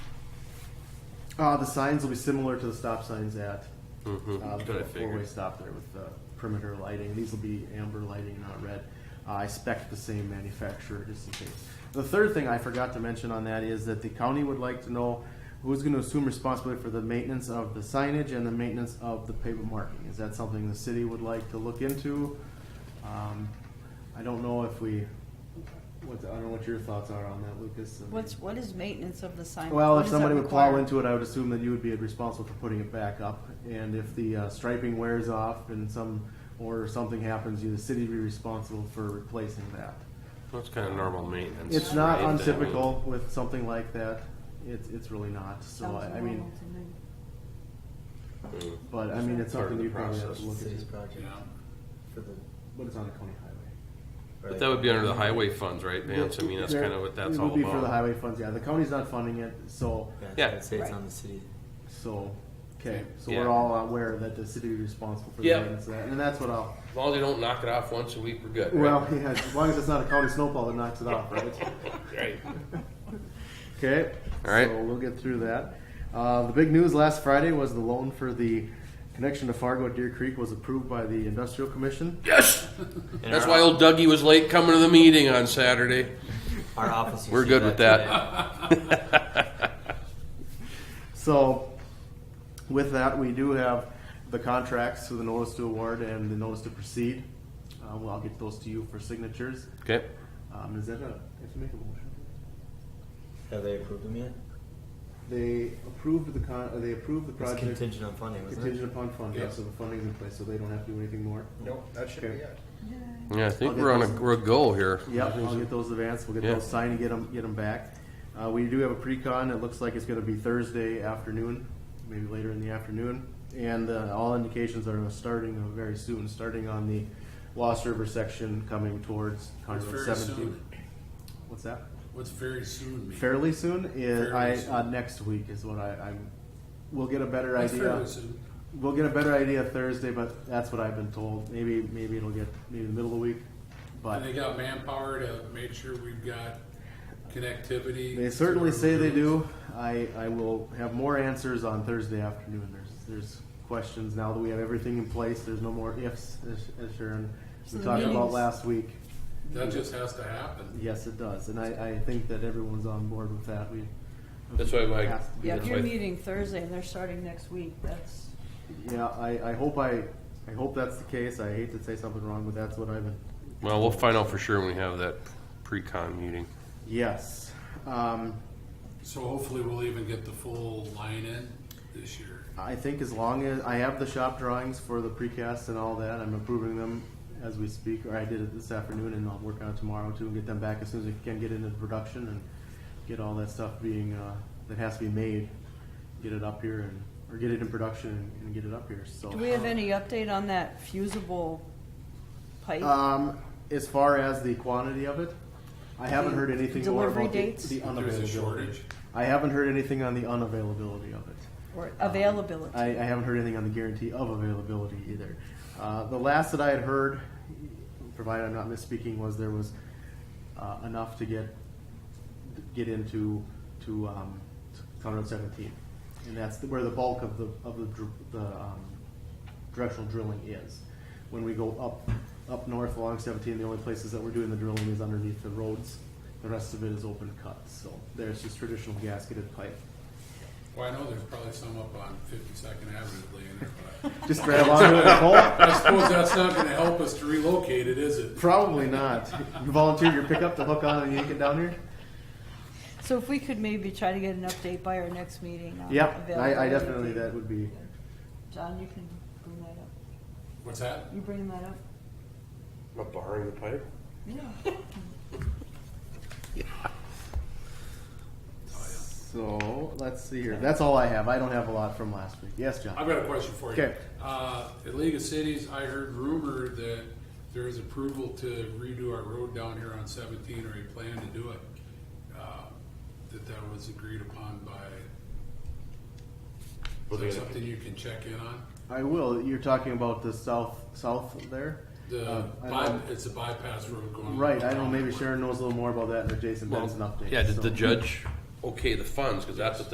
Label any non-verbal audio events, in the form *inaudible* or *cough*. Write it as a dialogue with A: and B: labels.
A: Uh, the signs will be similar to the stop signs at, uh,
B: Kinda
A: the four-way
B: figured.
A: stop there with the perimeter lighting. These will be amber lighting, not red. Uh, I spec the same manufacturer just in case. The third thing I forgot to mention on that is that the county would like to know who's gonna assume responsibility for the maintenance of the signage and the maintenance of the pavement marking. Is that something the city would like to look into? Um, I don't know if we, what, I don't know what your thoughts are on that, Lucas. I mean-
C: What's, what is maintenance of the sign?
A: well,
C: What
A: if
C: does that
A: somebody would plow
C: require?
A: into it, I would assume that you would be responsible for putting it back up. And if the uh, striping wears off and some, or something happens, you, the city would be responsible for replacing that.
B: That's kind of normal maintenance.
A: It's not
B: right? I mean,
A: untypical with something like that. It's, it's really not, so I, I mean,
B: mm,
A: but I mean, it's
B: Part of
A: something
B: the
A: you probably have to
B: process.
A: look
D: City's
A: at.
D: project for the.
A: But it's on the county highway.
B: But that would be under the highway funds, right, Vance? I mean, that's
A: There-
B: kind of what that's
A: It
B: all
A: would be for the
B: about.
A: highway funds, yeah. The county's not funding it, so,
B: Yeah.
D: Yeah, I'd say it's
C: Right.
D: on the city.
A: so, okay. So
B: Yeah.
A: we're all aware that the city is responsible for the
B: Yep.
A: maintenance of that, and that's what I'll,
B: As long as you don't knock it off once a week, we're good,
A: Well, *laughs*
B: right?
A: yeah, as long as it's not a county snowball that knocks it off, right?
B: *laughs* Right.
A: Okay.
B: All right.
A: So we'll get through that. Uh, the big news last Friday was the loan for the connection to Fargo at Deer Creek was approved by the Industrial Commission.
B: Yes! That's why old Dougie was late coming to the meeting on Saturday.
D: Our office. will
B: We're
D: see
B: good with
D: today.
B: that.
A: So with that, we do have the contracts with the notice to award and the notice to proceed. Uh, well, I'll get those to you for signatures.
B: Okay.
A: Um, is that a, I have to make a motion?
D: Have they approved them yet?
A: They approved the con, uh, they approved the
D: It's
A: project
D: contingent on funding, wasn't it?
A: contingent upon funding, so the funding's in place, so they don't have to do anything more.
E: No, that should be
A: Okay.
E: it.
B: Yeah, I think
A: I'll get
B: we're on a,
A: those.
B: we're a goal here.
A: Yep, I'll get those advanced, we'll get
B: Yeah.
A: those signed and get them, get them back. Uh, we do have a pre-con, it looks like it's gonna be Thursday afternoon, maybe later in the afternoon. And, uh, all indications are starting uh, very soon, starting on the Lost River section coming towards County Road
F: Very
A: seventeen.
F: soon.
A: What's that?
F: What's very soon mean?
A: Fairly soon is,
F: Fairly
A: I,
F: soon.
A: uh, next week is what I, I'm, we'll get a better
F: What's
A: idea.
F: fairly soon?
A: We'll get a better idea Thursday, but that's what I've been told. Maybe, maybe it'll get, maybe the middle of the week,
F: And they
A: but
F: got manpower to make sure we've got connectivity.
A: they certainly say they do. I, I will have more answers on Thursday afternoon. There's, there's questions now that we have everything in place. There's no more ifs, as, as Sharon,
C: So
A: we
C: the
A: talked about
C: meetings-
A: last week.
F: That just has to happen.
A: Yes, it does, and I, I think that everyone's on board with that. We.
B: That's why my-
A: Has to be
C: Yeah,
A: done.
C: if you're meeting Thursday and they're starting next week, that's,
A: Yeah, I, I hope I, I hope that's the case. I hate to say something wrong, but that's what I've been
B: Well, we'll find out for sure when we have that pre-con meeting.
A: Yes. Um,
F: So hopefully we'll even get the full line in this year.
A: I think as long as I have the shop drawings for the precast and all that, I'm approving them as we speak, or I did it this afternoon and I'll work on it tomorrow too and get them back as soon as we can get into production and get all that stuff being, uh, that has to be made, get it up here and, or get it in production and, and get it up here, so.
C: do we have any update on that fusible pipe?
A: Um, as far as the quantity of it, I haven't heard anything more
C: Delivery
A: about the,
C: dates?
A: the unavailability.
F: There's a shortage.
A: I haven't heard anything on the unavailability of it.
C: Or
A: I,
C: availability?
A: I haven't heard anything on the guarantee of availability either. Uh, the last that I had heard, provided I'm not misspeaking, was there was uh, enough to get get into to um, to Conroe 17, and that's the, where the bulk of the of the, dr- the um, directional drilling is. When we go up up north along 17, the only places that we're doing the drilling is underneath the roads. The rest of it is open cut, so there's just traditional gasketed pipe.
F: Well, I know there's probably some up on Fifty-second Avenue laying there, but
A: Just grab onto it and pull.
F: I suppose that's not gonna help us to relocate it, is it?
A: Probably not. You volunteered your pickup to hook on and yank it down here?
C: So if we could maybe try to get an update by our next meeting on
A: Yep, I, I
C: availability.
A: definitely, that would be,
C: John, you can bring that up.
F: What's that?
C: You bringing that up?
B: About borrowing the pipe?
C: Yeah. *laughs*
A: so, let's see here. That's all I have. I don't have a lot from last week. Yes, John?
F: I've got a question for you.
A: Okay.
F: Uh, at League of Cities, I heard rumor that there is approval to redo our road down here on seventeen, or a plan to do it. Uh, That that was agreed upon by, is that something you can check in on?
A: I will. You're talking about the south, south there?
F: The,
A: Uh, I
F: by-
A: don't-
F: it's a bypass road going.
A: Right, I don't know, maybe Sharon knows a little more about that, or Jason, that's an update.
B: Yeah, did
A: so.
B: the judge okay the funds? Because that's what